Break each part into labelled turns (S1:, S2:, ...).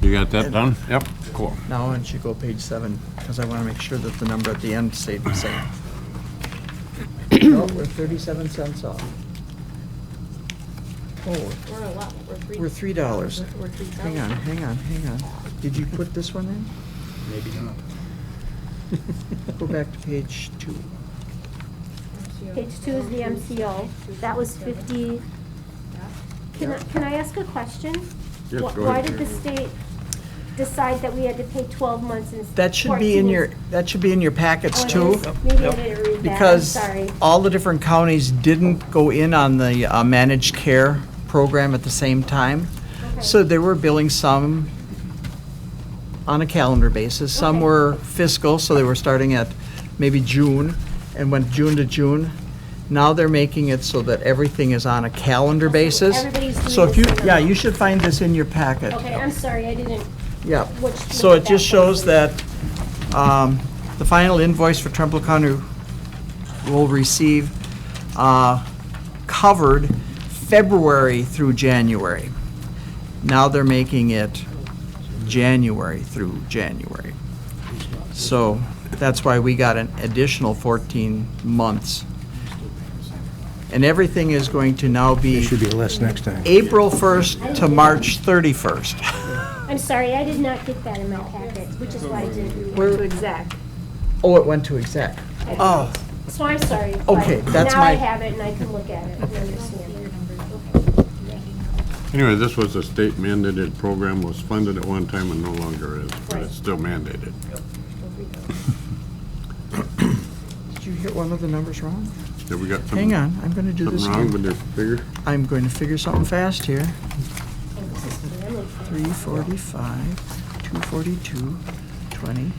S1: You got that done? Yep. Cool.
S2: Now, why don't you go page seven, because I want to make sure that the number at the end stayed the same.
S3: No, we're 37 cents off.
S2: Oh,
S4: We're a lot, we're three.
S2: We're three dollars.
S4: We're- We're three thousand.
S2: hang on, hang on, hang on. Did you put this one in?
S5: Maybe not.
S2: Go back to page two.
S6: Page two is the MCO. That was fifty. Can, I- can I ask a question?
S1: Yes,
S6: Wh-
S1: go
S6: Why
S1: ahead.
S6: did the state decide that we had to pay twelve months instead?
S2: That should be in your, that should be in your packets
S6: Oh,
S2: too.
S6: Maybe I didn't read that, I'm
S2: Because
S6: sorry.
S2: all the different counties didn't go in on the uh, managed care program at the same time. So
S6: Okay.
S2: they were billing some on a calendar basis. Some
S6: Okay.
S2: were fiscal, so they were starting at maybe June and went June to June. Now they're making it so that everything is on a calendar
S6: Okay,
S2: basis.
S6: everybody's doing
S2: So if
S6: the
S2: you,
S6: same
S2: yeah,
S6: amount.
S2: you should find this in your packet.
S6: Okay, I'm sorry, I didn't,
S2: Yeah,
S6: Which
S2: so
S6: number
S2: it just
S6: that
S2: shows
S6: was.
S2: that um, the final invoice for Trumbull County will receive uh, covered February through January. Now they're making it January through January. So that's why we got an additional 14 months. And everything is going to now
S5: It
S2: be
S5: should be less next time.
S2: April 1st to March 31st.
S6: I'm sorry, I did not get that in my packet, which is why I didn't.
S2: Where-
S6: to exact.
S2: Oh, it went to exec. Oh,
S6: So I'm sorry. but
S2: Okay, that's
S6: Now I
S2: my-
S6: have it and I can look at it and understand it.
S1: Anyway, this was a state mandated program, was funded at one time and no longer is, but it's still mandated.
S2: did you hear one of the numbers wrong?
S1: Have we got some-
S2: Hang on, I'm gonna do this
S1: something wrong with
S2: again.
S1: your figure?
S2: I'm going to figure something fast here.
S6: Oh, this is really fun.
S2: Three forty-five, two forty-two, twenty,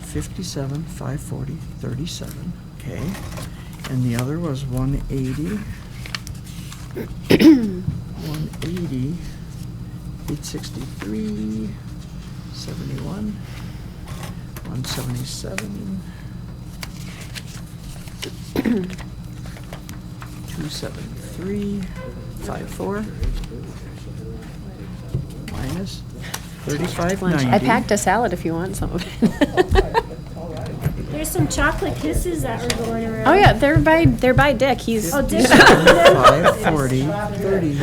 S2: fifty-seven, five forty, thirty-seven, okay? And the other was one eighty. One eighty, eight sixty-three, seventy-one, one seventy-seven. Two seventy-three, five four minus thirty-five ninety.
S7: I packed a salad if you want some of it.
S6: There's some chocolate kisses that were going around.
S7: Oh, yeah, they're by, they're by Dick, he's.
S6: Oh, Dick.
S2: Five forty, thirty,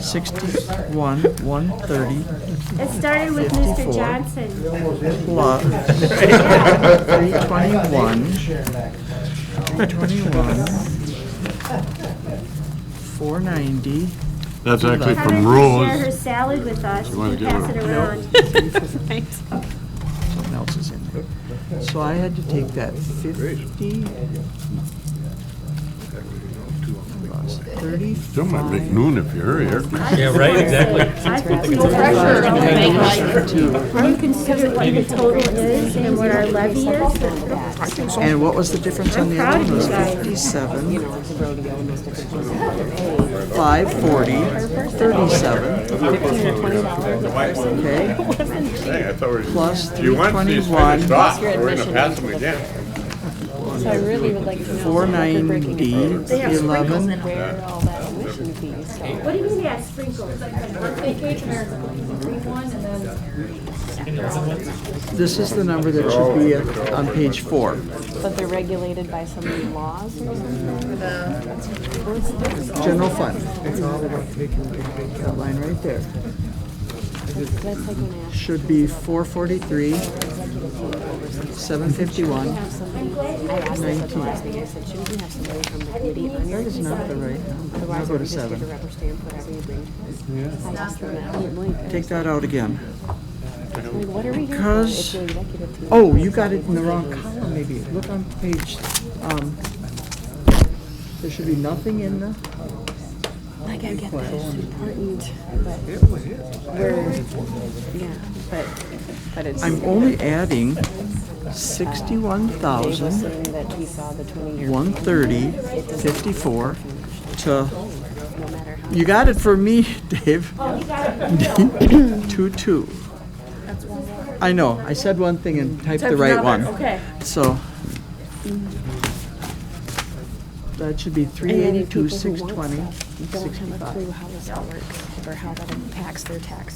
S2: sixty-one, one thirty,
S6: It started with Mr.
S2: 54.
S6: Johnson.
S2: plus three twenty-one, three twenty-one, four ninety,
S1: That's actually
S6: Have her
S1: from
S6: share her
S1: rules.
S6: salad with us
S1: You wanna
S6: and
S1: give
S6: pass
S1: her-
S6: it around.
S7: Thanks.
S2: something else is in there. So I had to take that fifty. plus
S1: Still might make noon if you hurry here.
S8: Yeah, right, exactly.
S6: I think we Do you consider what the total is and what our levy is?
S2: And what was the difference on the
S6: I'm
S2: other
S6: proud
S2: one?
S6: of
S2: was
S6: you guys.
S2: fifty-seven. Five forty, thirty-seven, okay,
S1: Hey, I thought we were-
S2: plus
S1: You
S2: three
S1: want these
S2: twenty-one,
S1: finished off, we're gonna pass them again.
S7: So I really would like to know.
S2: four
S7: if they're breaking
S2: ninety,
S7: it.
S2: eleven,
S7: Where all that tuition fee stuff.
S6: What do you mean, yeah, sprinkles?
S2: this is the number that should be at- on page four.
S7: But they're regulated by some laws or something?
S2: General fund. That line right there.
S7: That's like when I asked
S2: Should be four forty-three, seven fifty-one.
S7: somebody, I asked this at the last meeting, I said, shouldn't we have somebody from the committee on your
S2: That is not the right number. I'll
S7: Otherwise,
S2: go
S7: we
S2: to
S7: just get a
S2: seven.
S7: rubber stamp whatever you bring. to us. I asked them that. I'm like,
S2: Take that out again.
S7: like, what are we here for?
S2: Because-
S7: It's your executive team.
S2: Oh, you got it in the wrong column, maybe. Look on page, um, there should be nothing in the,
S7: Like, I get that it's important, but we're, yeah, but, but it's.
S2: I'm only adding sixty-one thousand,
S7: Saying that he saw the twenty-year,
S2: one thirty, fifty-four to,
S7: no matter how.
S2: you got it for me, Dave. Two-two. I know, I said one thing and typed the right one.
S4: Okay.
S2: So. That should be three
S7: And then the
S2: eighty-two,
S7: people who
S2: six
S7: want
S2: twenty,
S7: stuff Don't have a
S2: sixty-five.
S7: clue how this all works or how that impacts their tax